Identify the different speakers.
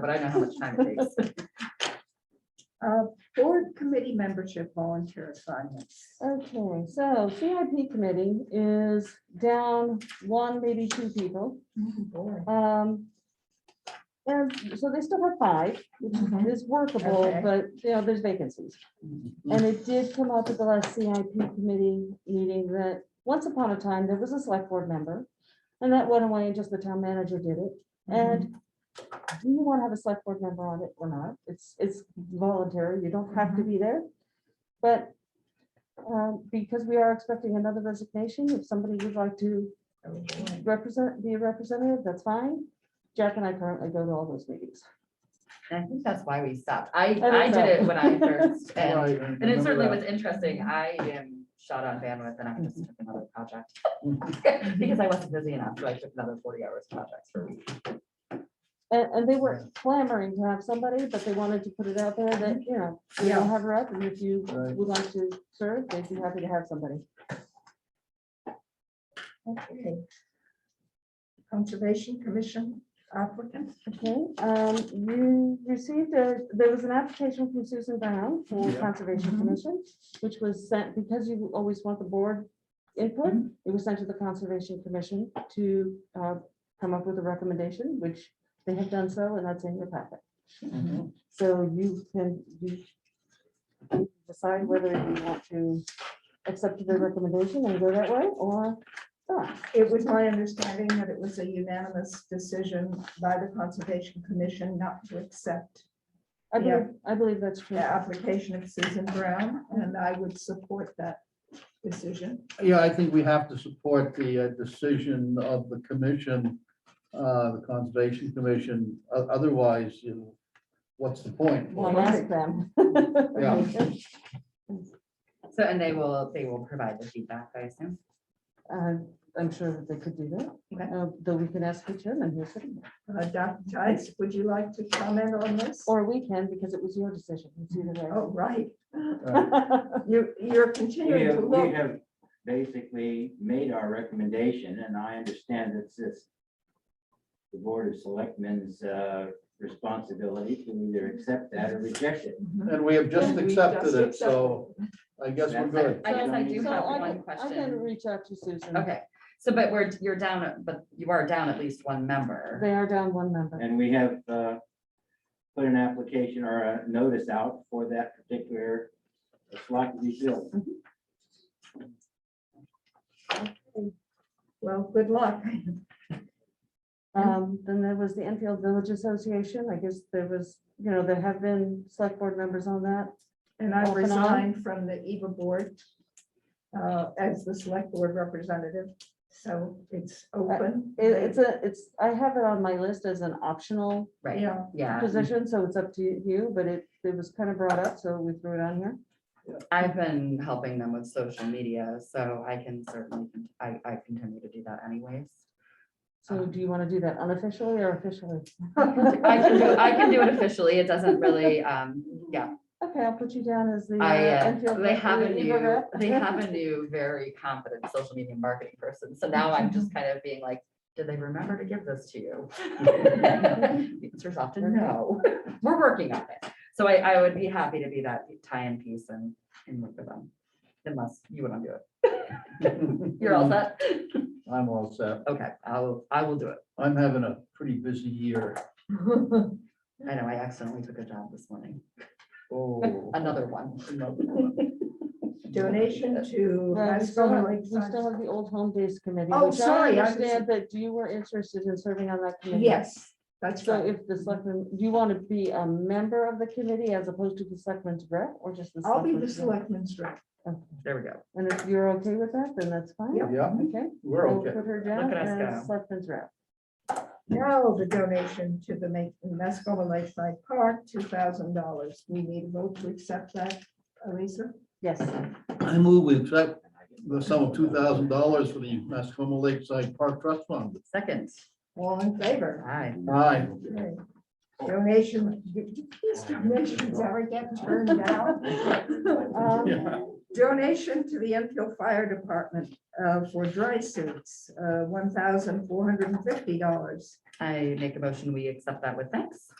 Speaker 1: but I know how much time it takes.
Speaker 2: Uh, board committee membership volunteer assignments.
Speaker 3: Okay, so CIP committee is down one, maybe two people.
Speaker 1: Mm-hmm.
Speaker 2: Board.
Speaker 3: Um, And so they still have five,
Speaker 2: Mhm.
Speaker 3: which is workable,
Speaker 2: Okay.
Speaker 3: but, you know, there's vacancies. And it did come up at the last CIP committee meeting that once upon a time, there was a select board member. And that went away and just the town manager did it. And do you want to have a select board member on it or not? It's, it's voluntary. You don't have to be there. But um, because we are expecting another resignation, if somebody would like to represent, be a representative, that's fine. Jack and I currently go to all those meetings.
Speaker 1: And I think that's why we stopped. I,
Speaker 3: think
Speaker 1: I did it
Speaker 3: so.
Speaker 1: when I first, and,
Speaker 4: Right, I
Speaker 1: and it
Speaker 4: remember
Speaker 1: certainly
Speaker 4: that.
Speaker 1: was interesting. I am shot on bandwidth and I just
Speaker 2: Mm-hmm.
Speaker 1: took another project. Because I wasn't busy enough, so I took another forty hours project for a week.
Speaker 3: And, and they were clamoring to have somebody, but they wanted to put it out there that, you know, we
Speaker 2: Yeah.
Speaker 3: don't have her up, and if you
Speaker 4: Right.
Speaker 3: would like to serve, they'd be happy to have somebody.
Speaker 2: Okay. Conservation Commission applicants.
Speaker 3: Okay, um, you received a, there was an application from Susan Brown for
Speaker 4: Yeah.
Speaker 3: Conservation
Speaker 2: Mhm.
Speaker 3: Commission, which was sent, because you always want the board input,
Speaker 4: Mm-hmm.
Speaker 2: Mhm.
Speaker 3: it was sent to the Conservation Commission to, uh, come up with a recommendation, which they have done so, and that's in your packet.
Speaker 4: Mhm.
Speaker 3: So you can, you can decide whether you want to accept the recommendation and go that way or not.
Speaker 2: It was my understanding that it was a unanimous decision by the Conservation Commission not to accept
Speaker 3: I
Speaker 2: Yeah.
Speaker 3: believe, I believe that's true.
Speaker 2: the application of Susan Brown, and I would support that decision.
Speaker 4: Yeah, I think we have to support the uh, decision of the commission, uh, the Conservation Commission. O- Otherwise, you know, what's the point?
Speaker 3: We'll ask them.
Speaker 4: Yeah.
Speaker 1: So, and they will, they will provide the feedback, I assume.
Speaker 3: Uh, I'm sure that they could do that,
Speaker 1: Okay.
Speaker 3: Uh, though we can ask the chairman here sitting, there.
Speaker 2: Uh, Dr. Tice, would you like to comment on this?
Speaker 3: or we can, because it was your decision. It's either way.
Speaker 2: Oh, right.
Speaker 4: Uh,
Speaker 1: Oh.
Speaker 3: Right,
Speaker 2: You're, you're
Speaker 5: We
Speaker 2: continuing
Speaker 5: have,
Speaker 2: to
Speaker 5: we
Speaker 2: look.
Speaker 5: have basically made our recommendation, and I understand it's this. The Board of Selectmen's uh, responsibility to either accept that or reject it.
Speaker 2: Mhm.
Speaker 4: And we have just
Speaker 2: And we
Speaker 4: accepted
Speaker 2: just
Speaker 4: it, so I guess we're good.
Speaker 1: I guess I do
Speaker 3: So
Speaker 1: have
Speaker 3: I
Speaker 1: one
Speaker 3: can- I
Speaker 1: question.
Speaker 3: can reach out to Susan.
Speaker 1: Okay, so but we're, you're down, at- but you are down at least one member.
Speaker 3: They are down one member.
Speaker 5: And we have uh, put an application or a notice out for that particular uh, slot to be filled.
Speaker 2: Well, good luck.
Speaker 3: Um, then there was the Enfield Village Association. I guess there was, you know, there have been select board members on that.
Speaker 2: And I
Speaker 3: Off and on.
Speaker 2: resigned from the EVA board uh, as the select board representative, so it's open.
Speaker 3: Uh, It- it's a, it's, I have it on my list as an optional
Speaker 1: Right,
Speaker 2: Yeah,
Speaker 1: yeah.
Speaker 3: position, so it's up to you, but it, it was kind of brought up, so we threw it on here.
Speaker 1: I've been helping them with social media, so I can certainly, con- I, I continue to do that anyways.
Speaker 3: So do you want to do that unofficially or officially?
Speaker 1: Uh-huh. I can do, I can do it officially. It doesn't really, um, yeah,
Speaker 3: Okay, I'll put you down as the.
Speaker 1: I,
Speaker 3: uh,
Speaker 1: uh,
Speaker 3: Enfield
Speaker 1: they have a
Speaker 3: Village League
Speaker 1: new,
Speaker 3: rep.
Speaker 1: they have a new, very competent social media marketing person. So now I'm just kind of being like, did they remember to give this to you? The answer is often no. We're working on it. So I, I would be happy to be that tie-in piece and, and work with them. Unless you want to do it. You're all set?
Speaker 4: I'm all set.
Speaker 1: Okay, I'll, I will do it.
Speaker 4: I'm having a pretty busy year.
Speaker 1: I know, I accidentally took a job this morning,
Speaker 4: Oh.
Speaker 1: another one.
Speaker 4: another one.
Speaker 2: donation to.
Speaker 3: Well, We still
Speaker 2: Mascoma
Speaker 3: have
Speaker 2: Lake
Speaker 3: we still
Speaker 2: Science-
Speaker 3: have the Old Home Days Committee.
Speaker 2: Oh,
Speaker 3: which I
Speaker 2: sorry, I was-
Speaker 3: Understand that you were interested in serving on that committee.
Speaker 2: Yes, that's
Speaker 3: So
Speaker 2: right.
Speaker 3: if the selectman, do you want to be a member of the committee as opposed to the selectman's rep or just the?
Speaker 2: I'll be the
Speaker 3: selectman's rep?
Speaker 2: selectman's rep.
Speaker 3: Okay.
Speaker 1: There we go.
Speaker 3: And if you're okay with that, then that's fine.
Speaker 2: Yeah.
Speaker 4: Yeah,
Speaker 3: Okay.
Speaker 4: we're
Speaker 3: we'll
Speaker 4: okay.
Speaker 3: Put her
Speaker 1: Look
Speaker 3: down
Speaker 1: at us
Speaker 3: as
Speaker 4: uh,
Speaker 1: go.
Speaker 3: selectman's rep.
Speaker 2: Now the donation to the Ma- Mascoma Lakeside Park, two thousand dollars. We need a vote to accept that, Elisa.
Speaker 3: Yes.
Speaker 4: I move we accept the sum of two thousand dollars for the Mascoma Lakeside Park Trust Fund.
Speaker 1: Second,
Speaker 2: All in favor?
Speaker 1: aye.
Speaker 4: Aye.
Speaker 2: Okay. Donation, these donations are getting turned down. Um,
Speaker 4: Yeah.
Speaker 2: Donation to the Enfield Fire Department uh, for dry uh, suits, one thousand four hundred and fifty dollars.
Speaker 1: I make a motion, we accept that with thanks.